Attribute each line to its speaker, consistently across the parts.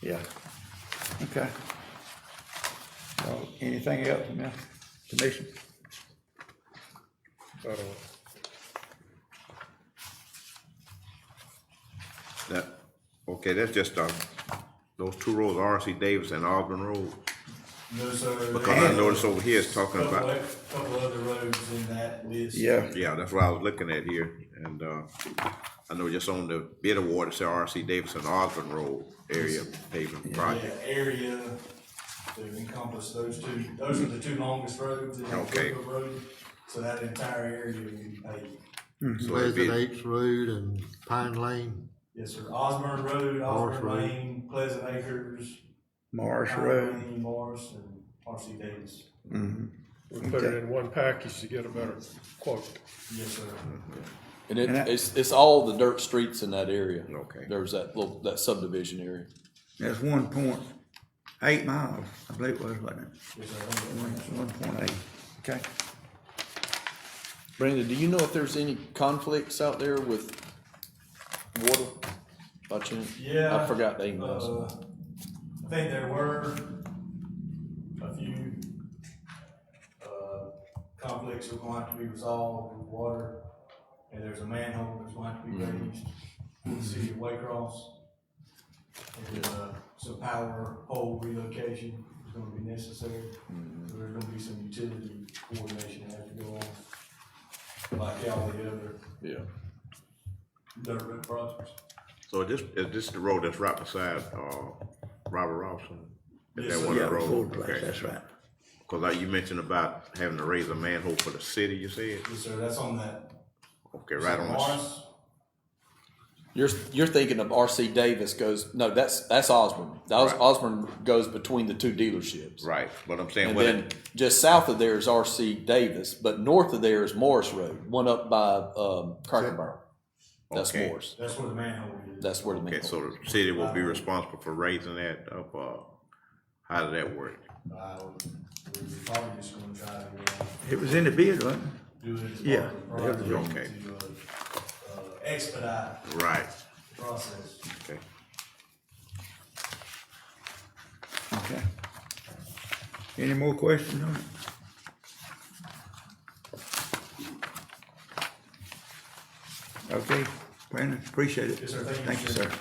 Speaker 1: Yeah. Okay. Well, Anything else, man? Commission?
Speaker 2: That, okay, that's just, um, those two roads, R.C. Davis and Auburn Road,
Speaker 3: No, sir.
Speaker 2: because I
Speaker 3: And
Speaker 2: noticed over here it's talking
Speaker 3: Couple,
Speaker 2: about,
Speaker 3: of- couple other roads in that list.
Speaker 1: Yeah,
Speaker 2: yeah, that's what I was looking at here, and, uh, I know just on the bid award, it said R.C. Davis and Auburn Road area paving
Speaker 3: Yeah,
Speaker 2: project.
Speaker 3: area to encompass those two, those are the two longest roads in the
Speaker 2: Okay.
Speaker 3: Cooper Road, so that entire area will be paved.
Speaker 2: So it'd
Speaker 4: Pleasant
Speaker 2: be,
Speaker 4: Apes Road and Pine Lane.
Speaker 3: Yes, sir, Osborne Road, Osborne
Speaker 4: Road.
Speaker 3: Lane, Pleasant Acres,
Speaker 1: Marsh
Speaker 3: Pine
Speaker 1: Road.
Speaker 3: Lane, Morris, and R.C. Davis.
Speaker 5: We put it in one package to get a better quote.
Speaker 3: Yes, sir.
Speaker 6: And it,
Speaker 1: And that-
Speaker 6: it's, it's all the dirt streets in that area.
Speaker 2: Okay.
Speaker 6: There's that little, that subdivision area.
Speaker 1: That's one point eight miles, I believe it was, wasn't
Speaker 3: Yes, sir.
Speaker 1: it? One point eight, okay.
Speaker 6: Brandon, do you know if there's any conflicts out there with water by chance?
Speaker 3: Yeah.
Speaker 6: I forgot the emails.
Speaker 3: Uh, I think there were a few, uh, conflicts that were going to have to be resolved with water. And there's a manhole that's going to have to be
Speaker 2: Mm-hmm.
Speaker 3: raised in the city of Waycross. And, uh, some power pole relocation is gonna be necessary.
Speaker 2: Mm-hmm.
Speaker 3: So there's gonna be some utility coordination that has to go on, like all the other
Speaker 6: Yeah.
Speaker 3: dirt road projects.
Speaker 2: so this, is this the road that's right beside, uh, Robert Robson? Is
Speaker 3: Yes,
Speaker 2: that
Speaker 3: sir.
Speaker 2: one
Speaker 1: Yeah,
Speaker 2: of the
Speaker 1: Ford
Speaker 2: roads?
Speaker 1: Place,
Speaker 2: Okay,
Speaker 1: that's right.
Speaker 2: cause like you mentioned about having to raise a manhole for the city, you said?
Speaker 3: Yes, sir, that's on that.
Speaker 2: Okay, right on the,
Speaker 3: Morris,
Speaker 6: You're, you're thinking of RC Davis goes, no, that's, that's Osborne. That was,
Speaker 2: Right.
Speaker 6: Osborne goes between the two dealerships.
Speaker 2: right, but I'm saying,
Speaker 6: And
Speaker 2: what it-
Speaker 6: then just south of there is RC Davis, but north of there is Morris Road, one up by, um, Cracker Barrel. That's
Speaker 2: Okay.
Speaker 6: Morris.
Speaker 3: that's where the manhole is.
Speaker 6: That's where the main.
Speaker 2: Okay, so the city will be responsible for raising that up, uh, how does that work?
Speaker 3: I would, we're probably just gonna try to uh,
Speaker 1: It was in the bid, wasn't it?
Speaker 3: do it as
Speaker 1: Yeah,
Speaker 3: part of the
Speaker 2: yeah,
Speaker 3: project
Speaker 2: okay.
Speaker 3: to, uh, uh, expedite
Speaker 2: Right,
Speaker 3: the process.
Speaker 2: okay.
Speaker 1: Okay. Any more questions on it? Okay, Brandon, appreciate it.
Speaker 3: Yes, sir. Thank you,
Speaker 1: Thank you,
Speaker 3: sir.
Speaker 1: sir.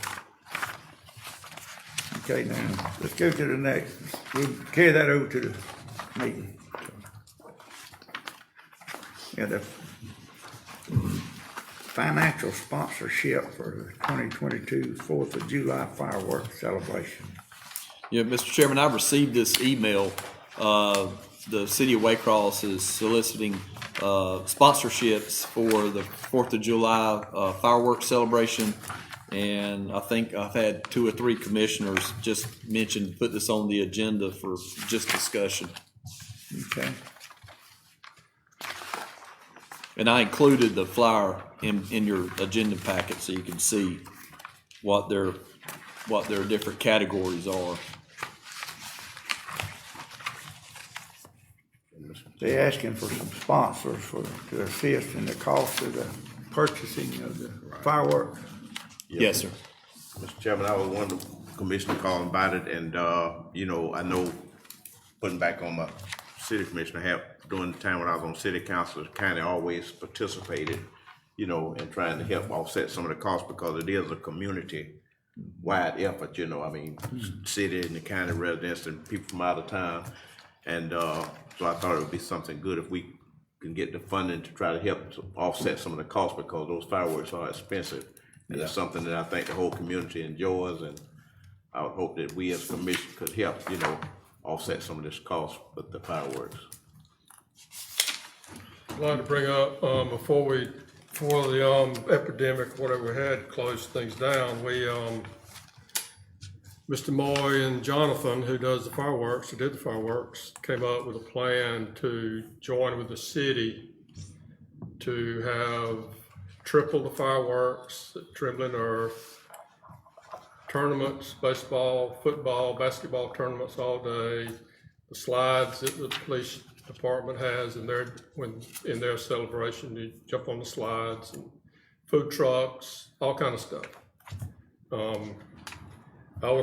Speaker 1: Okay, now, let's go to the next, we'll carry that over to the meeting. Yeah, the financial sponsorship for the 2022 Fourth of July fireworks celebration.
Speaker 6: Yeah, Mr. Chairman, I've received this email. Uh, The city of Waycross is soliciting uh, sponsorships for the Fourth of July uh, fireworks celebration. And I think I've had two or three commissioners just mention, put this on the agenda for just discussion.
Speaker 1: Okay,
Speaker 6: And I included the flyer in, in your agenda packet so you can see what their, what their different categories are.
Speaker 1: they asking for some sponsors for, to assist in the cost of the purchasing of the fireworks.
Speaker 6: Yes, sir.
Speaker 2: Mr. Chairman, I was one of the commissioners calling about it, and, uh, you know, I know, putting back on my city commissioner hat, during the time when I was on city council, the county always participated, you know, in trying to help offset some of the costs, because it is a community-wide effort, you know, I mean, city and the county residents and people from out of town. And, uh, so I thought it would be something good if we can get the funding to try to help to offset some of the costs, because those fireworks are expensive. And it's something that I think the whole community enjoys, and I would hope that we as commission could help, you know, offset some of this cost with the fireworks.
Speaker 5: I'd like to bring up, um, before we, before the, um, epidemic, whatever we had, closed things down, we, um, Mr. Moy and Jonathan, who does the fireworks, who did the fireworks, came up with a plan to join with the city to have triple the fireworks at Trembling Earth, tournaments, baseball, football, basketball tournaments all day, the slides that the police department has in their, when, in their celebration, you jump on the slides, and food trucks, all kind of stuff. Um, I would